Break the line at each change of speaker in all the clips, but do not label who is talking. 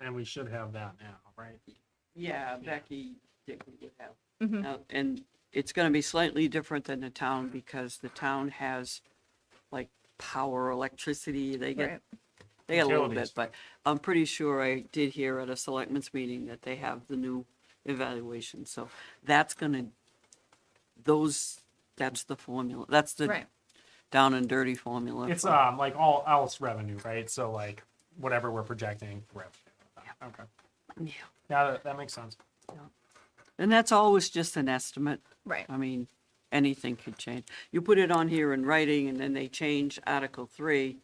and we should have that now, right?
Yeah, Becky did, we would have.
Mhm.
Now, And it's gonna be slightly different than the town because the town has like power, electricity, they get,
Right.
they get a little
Utilities.
bit, but I'm pretty sure I did hear at a selectmen's meeting that they have the new evaluation, so that's gonna, those, that's the formula, that's the
Right.
down and dirty formula.
It's
for-
um like all else revenue, right? So like whatever we're projecting revenue. Okay.
Yeah.
Yeah, that, that makes sense.
And that's always just an estimate.
Right.
I mean, anything could change. You put it on here in writing and then they change Article three,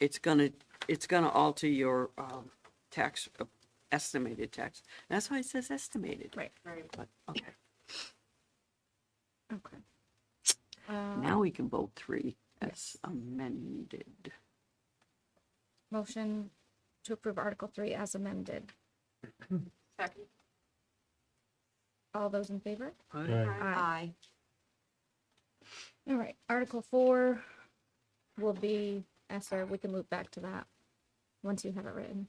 it's gonna, it's gonna alter your, um, tax, uh, estimated tax. That's why it says estimated.
Right.
But, okay,
Okay. Um,
now we can vote three as amended.
Motion to approve Article Three as amended.
Second.
All those in favor?
Aye.
All right, Article Four will be, Esther, we can move back to that, once you have it written.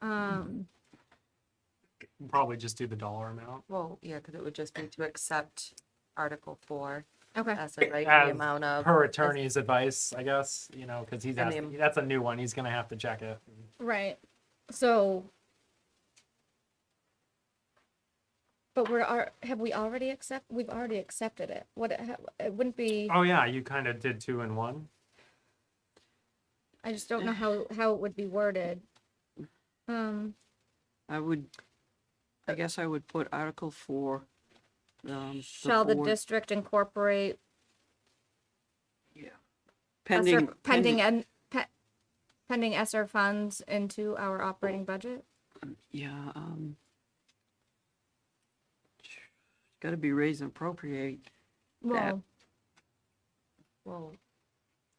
Um,
We'll Probably just do the dollar amount.
Well, yeah, because it would just be to accept Article Four
okay,
as a right
As
the amount of.
Her attorney's advice, I guess, you know, because he's
Uh, And
asking,
the-
that's a new one. He's gonna have to check it.
right, so. But we're, are, have we already accept, we've already accepted it, what, it ha- it wouldn't be,
Oh yeah, you kind of did two in one.
I just don't know how, how it would be worded. Um,
I would, I guess I would put Article four, um.
shall the
board-
district incorporate
Yeah.
ESSER
Pending.
Pending and, pe- pending ESSER funds into our operating budget?
Yeah, um. Gotta be raised and appropriate.
Well.
Well,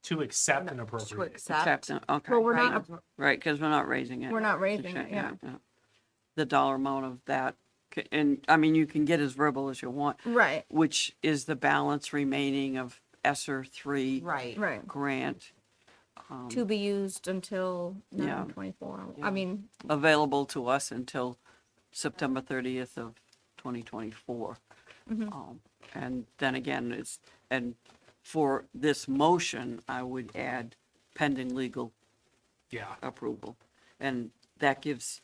To accept and
to
appropriate.
accept.
Accept, uh, okay.
Well, we're
right,
not
Right, because we're not raising it.
We're not
It's a
raising it,
shame,
yeah.
The dollar amount of that, c- and, I mean, you can get as verbal as you want,
Right,
which is the balance remaining of ESSER three
Right.
right.
grant um,
To be used until
Yeah.
nine twenty-four.
Yeah.
I mean,
available to us until September thirtieth of twenty twenty-four. Um,
Mhm.
And then again, it's, and for this motion, I would add pending legal
Yeah.
approval. And that gives,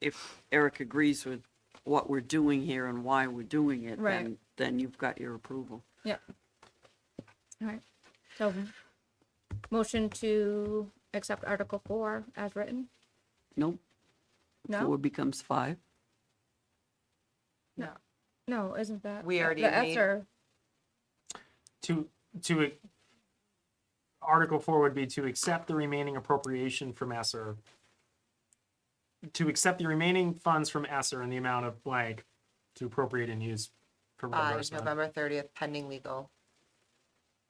if Eric agrees with what we're doing here and why we're doing it,
Right.
then, then you've got your approval.
yeah. All right, so motion to accept Article Four as written?
Nope, four
No,
becomes five.
No,
no, isn't that?
We
the-
already
The
made-
ESSER,
to, to, Article four would be to accept the remaining appropriation from Esser. To accept the remaining funds from Esser in the amount of blank to appropriate and use for
by
reimbursement.
Uh, November thirtieth, pending legal,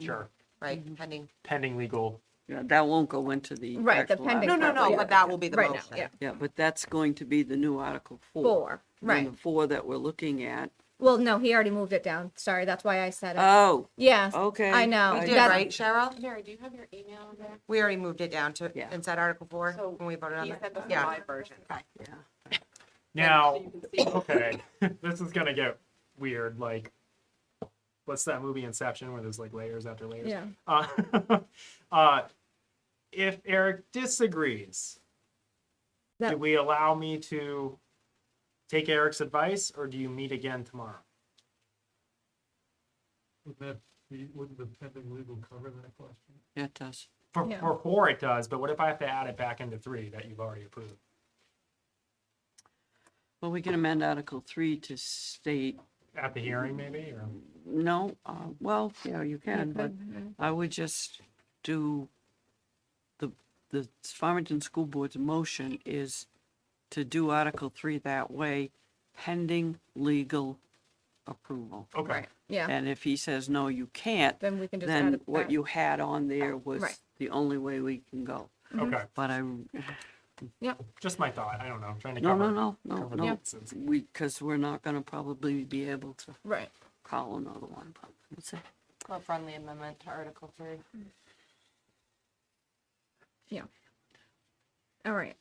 Sure,
right, pending.
pending legal.
Yeah, That won't go into the.
Right, the
actual
pending
article.
No, no, no,
but that will be the
right now,
motion.
yeah,
Yeah, but that's going to be the new Article Four.
four,
And then
right.
The four that we're looking at.
Well, no, he already moved it down. Sorry, that's why I said it.
Oh,
Yes,
okay.
I know.
We
I-
did,
that-
right, Cheryl?
Mary, do you have your email on there?
We already moved it down to,
Yeah.
inside Article Four,
So
when we voted on
He
that.
said the
Yeah.
live version.
Yeah.
Now,
So you can see it.
okay, this is gonna get weird, like, what's that movie Inception where there's like layers after layers?
Yeah.
Uh, uh, if Eric disagrees, do
That-
we allow me to take Eric's advice, or do you meet again tomorrow?
Would that be, wouldn't the pending legal cover that question?
Yeah, it does.
For,
Yeah.
for four, it does, but what if I have to add it back into three that you've already approved?
Well, we can amend Article Three to state
At the hearing, maybe, or?
No, uh, well, yeah, you can, but
could,
I would just do, the, the Farmington School Board's motion is to do Article Three that way, pending legal approval.
Okay,
Yeah,
And if he says, no, you can't,
then we can just add
then
it
what
back. Oh,
you had on there was
Right.
the only way we can go.
Mm-hmm.
okay,
But I,
Yep,
just my thought, I don't know, I'm trying to
no,
cover.
no, no, no,
cover
no,
bases.
we, because we're not gonna probably be able to
right.
call another one, but that's it.
A friendly amendment to Article Three.
All right,